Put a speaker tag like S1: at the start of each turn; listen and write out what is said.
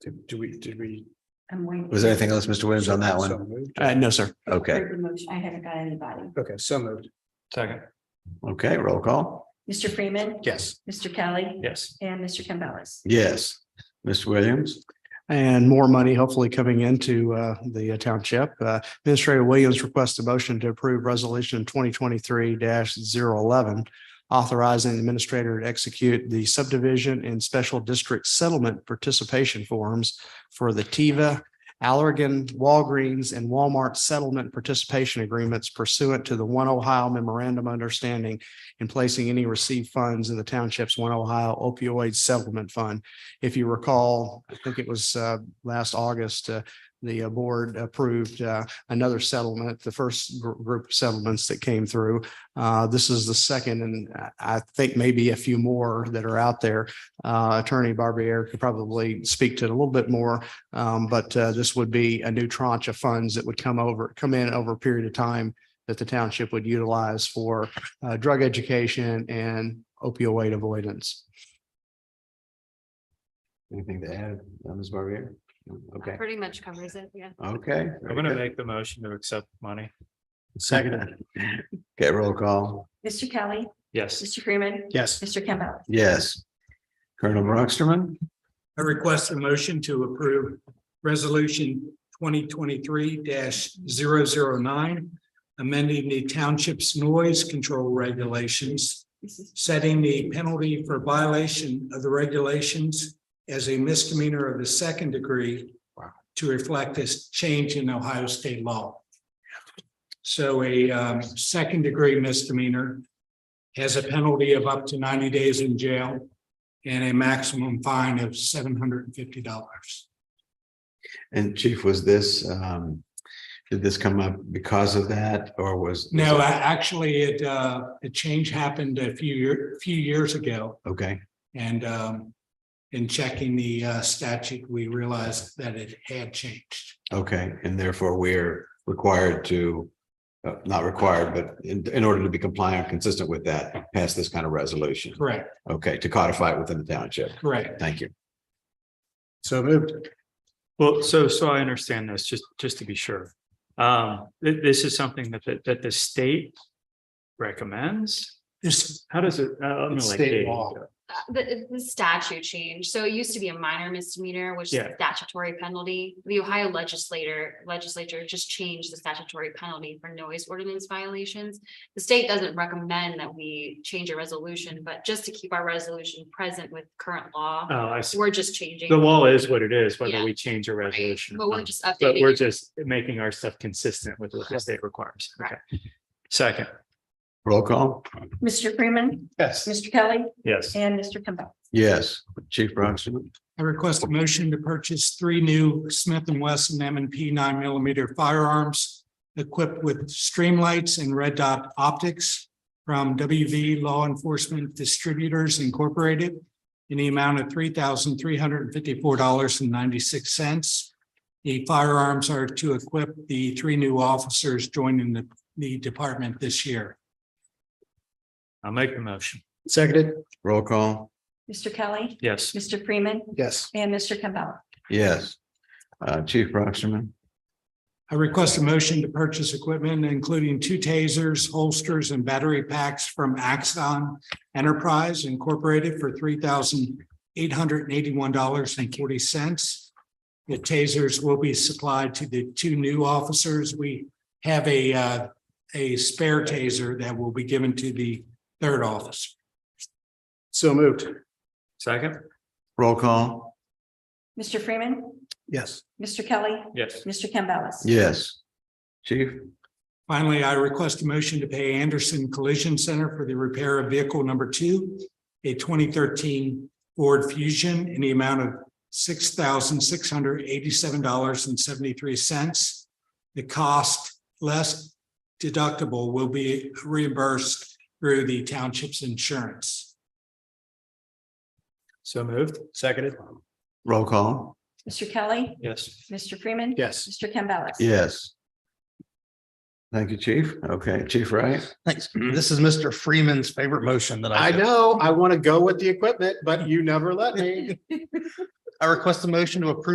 S1: Did do we, did we?
S2: I'm waiting.
S3: Was there anything else, Mr. Williams, on that
S1: So
S3: one?
S1: moved.
S4: Uh, no, sir.
S3: Okay,
S2: Heard the motion. I haven't got anybody.
S1: Okay, so moved.
S4: Second.
S3: okay, roll call.
S2: Mr. Freeman,
S1: Yes.
S2: Mr. Kelly,
S4: Yes.
S2: and Mr. Campbellis.
S3: Yes. Mr. Williams,
S4: And more money hopefully coming into uh, the township. Uh, Administrator Williams requests a motion to approve resolution twenty twenty-three 11 authorizing the administrator to execute the subdivision and special district settlement participation forms for the Tiva, Allergan, Walgreens, and Walmart settlement participation agreements pursuant to the One Ohio Memorandum of Understanding and placing any received funds in the township's One Ohio opioid settlement fund if you recall, I think it was uh, last August, uh, the uh, board approved uh, another settlement, the first gr- group of settlements that came through. Uh, This is the second, and I- I think maybe a few more that are out there. Uh, Attorney Barbier could probably speak to it a little bit more, um, but uh, this would be a new tranche of funds that would come over, come in over a period of time that the township would utilize for uh, drug education and opioid avoidance.
S3: anything to add, uh, Ms. Barbier? Okay,
S5: Pretty much covers it, yeah.
S3: okay.
S6: I'm gonna make the motion to accept money.
S3: Second. Okay, roll call.
S2: Mr. Kelly,
S6: Yes.
S2: Mr. Freeman,
S4: Yes.
S2: Mr. Campbellis.
S3: Yes. Colonel Brockstrom,
S7: I request a motion to approve resolution twenty twenty-three 9 amending the township's noise control regulations, setting the penalty for violation of the regulations as a misdemeanor of the second degree to reflect this change in Ohio state law. So a um, second degree misdemeanor has a penalty of up to ninety days in jail and a maximum fine of seven hundred and fifty dollars.
S3: and Chief, was this, um, did this come up because of that or was?
S7: No, I- actually, it, uh, the change happened a few year, few years ago
S3: Okay,
S7: and, um, in checking the, uh, statute, we realized that it had changed.
S3: okay, and therefore we're required to, uh, not required, but in, in order to be compliant, consistent with that, pass this kind of resolution.
S7: Correct,
S3: Okay, to codify it within the township.
S7: correct.
S3: Thank you.
S1: So moved.
S6: Well, so, so I understand this, just, just to be sure. Um, thi- this is something that, that, that the state recommends?
S7: This,
S6: How does it? uh, I'm gonna
S7: It's
S6: let
S7: state
S6: Katie
S7: law.
S6: go.
S5: Uh, The, the statute change, so it used to be a minor misdemeanor, which is a
S6: Yeah.
S5: statutory penalty. The Ohio legislator, legislature just changed the statutory penalty for noise ordinance violations. The state doesn't recommend that we change a resolution, but just to keep our resolution present with current law,
S6: Oh, I see.
S5: we're just changing.
S6: The law is what it is, whether
S5: Yeah.
S6: we change a
S5: right?
S6: resolution.
S5: But
S6: or
S5: we're
S6: not.
S5: just
S6: But we're
S5: updating. it.
S6: just making our stuff consistent with what the state requires. Okay. Second.
S3: Roll call.
S2: Mr. Freeman,
S1: Yes.
S2: Mr. Kelly,
S6: Yes.
S2: and Mr. Campbell.
S3: Yes, Chief Brockstrom.
S7: I request a motion to purchase three new Smith and Wesson M and P nine millimeter firearms equipped with streamlights and red dot optics from WV Law Enforcement Distributors Incorporated in the amount of three thousand three hundred and fifty-four dollars and ninety-six cents. The firearms are to equip the three new officers joining the, the department this year.
S6: I'll make the motion.
S1: Seconded.
S3: Roll call.
S2: Mr. Kelly,
S6: Yes.
S2: Mr. Freeman,
S1: Yes.
S2: and Mr. Campbell.
S3: Yes. Uh, Chief Brockstrom.
S7: I request a motion to purchase equipment, including two tasers, holsters, and battery packs from Axon Enterprise Incorporated for three thousand eight hundred and eighty-one dollars and forty cents. The tasers will be supplied to the two new officers. We have a, uh, a spare taser that will be given to the third officer.
S1: So moved.
S6: Second.
S3: Roll call.
S2: Mr. Freeman,
S1: Yes.
S2: Mr. Kelly,
S6: Yes.
S2: Mr. Campbellis.
S3: Yes. Chief.
S7: Finally, I request a motion to pay Anderson Collision Center for the repair of vehicle number two, a twenty thirteen Ford Fusion in the amount of six thousand six hundred eighty-seven dollars and seventy-three cents. The cost less deductible will be reimbursed through the township's insurance.
S6: So moved. Seconded.
S3: Roll call.
S2: Mr. Kelly,
S6: Yes.
S2: Mr. Freeman.
S1: Yes.
S2: Mr. Campbellis.
S3: Yes. Thank you, Chief. Okay, Chief Wright.
S8: Thanks. This is Mr. Freeman's favorite motion that I.
S1: I
S8: do.
S1: know, I want to go with the equipment, but you never let me.
S8: I request a motion to approve